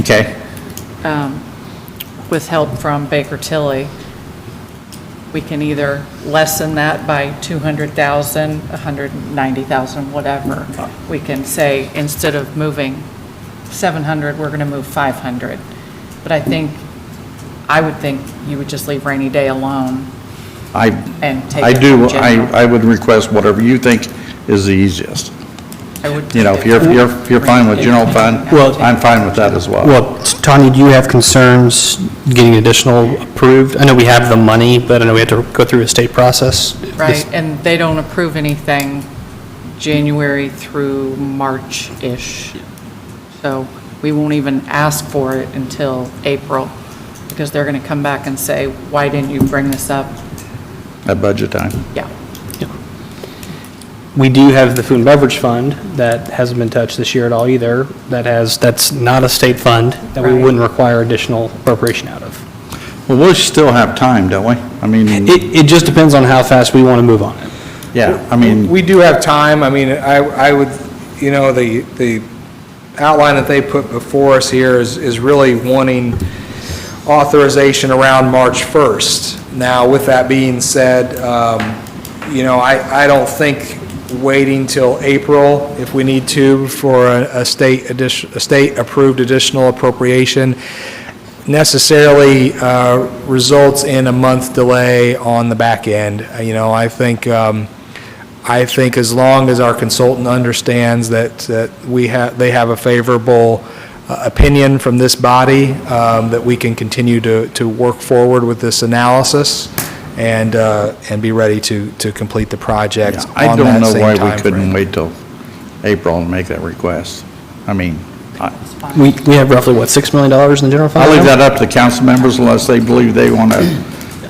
Okay, um, with help from Baker Tilly, we can either lessen that by 200,000, 190,000, whatever. We can say, instead of moving 700, we're going to move 500. But I think, I would think you would just leave rainy day alone I, and take I it do, from general. I, I would request whatever you think is the easiest. I would- You know, if you're, you're, if you're fine with general fund, Well- I'm fine with that as well. Well, Tanya, do you have concerns getting additional approved? I know we have the money, but I know we have to go through a state process. Right, and they don't approve anything January through March-ish. So we won't even ask for it until April, because they're going to come back and say, why didn't you bring this up? At budget time. Yeah. We do have the food and beverage fund that hasn't been touched this year at all either. That has, that's not a state fund that we Right. wouldn't require additional appropriation out of. Well, we'll still have time, don't we? I mean, It, it just depends on how fast we want to move on it. yeah, I mean, We do have time, I mean, I, I would, you know, the, the outline that they put before us here is, is really wanting authorization around March 1st. Now, with that being said, um, you know, I, I don't think waiting till April, if we need to, for a, a state addition, a state-approved additional appropriation necessarily uh, results in a month delay on the back end. Uh, You know, I think, um, I think as long as our consultant understands that, that we have, they have a favorable uh, opinion from this body, um, that we can continue to, to work forward with this analysis and, uh, and be ready to, to complete the project I on don't that know same why we timeframe. couldn't wait till April and make that request. I mean, I- We, we have roughly, what, $6 million in the general fund? I'll leave that up to council members unless they believe they want to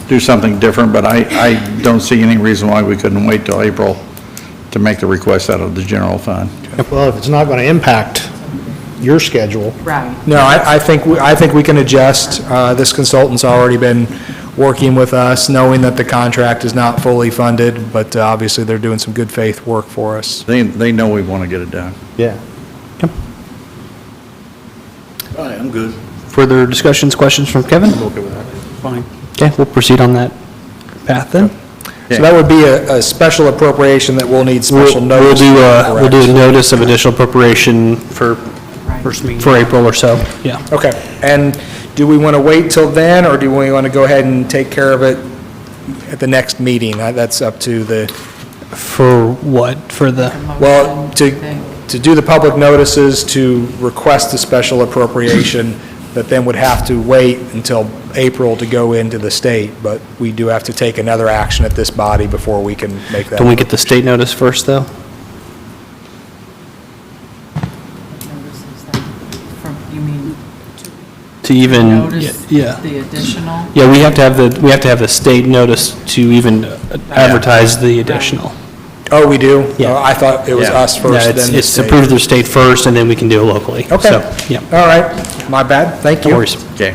do something different, but I, I don't see any reason why we couldn't wait till April to make the request out of the general fund. Well, if it's not going to impact your schedule, Right. No, I, I think, we- I think we can adjust. Uh, This consultant's already been working with us, knowing that the contract is not fully funded, but uh, obviously they're doing some good faith work for us. They, they know we want to get it done. yeah. Further discussions, questions from Kevin? okay with that. Fine. Okay, we'll proceed on that path then. So that would be a, a special appropriation that will need We'll special we'll notice. do, a- we'll Correct. do a notice of additional appropriation for, for April or so, yeah. Okay, and do we want to wait till then, or do we want to go ahead and take care of it at the next meeting? Uh, That's up to the, For what? For the, well, Motion, I think. to, to do the public notices, to request a special appropriation, that then would have to wait until April to go into the state, but we do have to take another action at this body before we can make that. can we get the state notice first, though? Notices that from- You mean, To even, notice Mm, yeah. the additional? Yeah, we have to have the, we have to have the state notice to even advertise the additional. Oh, we do? Yeah. Oh, I thought it was Yeah. us Yeah, first, it's- then the It's state. approved through state first, and then we can do it locally. Okay. So, Yeah, All right, my bad, thank you. no worries. Okay.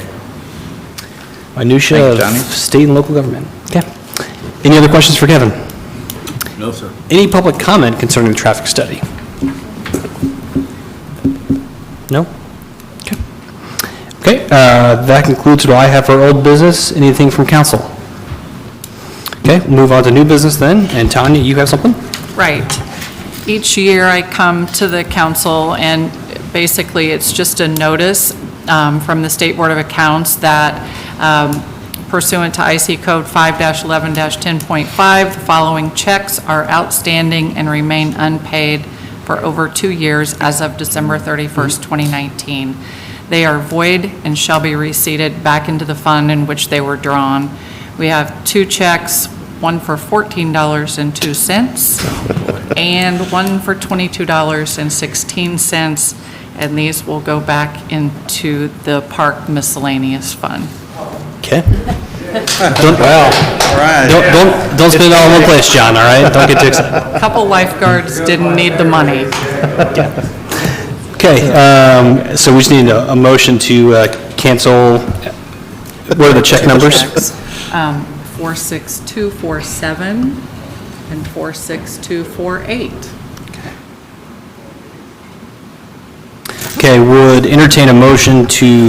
Minutia Thank you, of Johnny. state and local government. Okay. Any other questions for Kevin? No, sir. Any public comment concerning the traffic study? No? Okay. Okay, uh, that concludes what I have for old business. Anything from council? Okay, move on to new business then. And Tanya, you have something? Right. Each year, I come to the council, and basically, it's just a notice um, from the State Board of Accounts that um, pursuant to IC Code 5-11-10.5, the following checks are outstanding and remain unpaid for over two years as of December 31st, 2019. They are void and shall be receipted back into the fund in which they were drawn. We have two checks, one for $14.02 and one for $22.16, and these will go back into the park miscellaneous fund. Okay. Well, Don't, don't, don't spend it all in one place, John, all right? Don't get too excited. A Couple lifeguards didn't need the money. Okay, um, so we just need a, a motion to uh, cancel, what are the check numbers? Um, 46247 and 46248. Okay, would entertain a motion to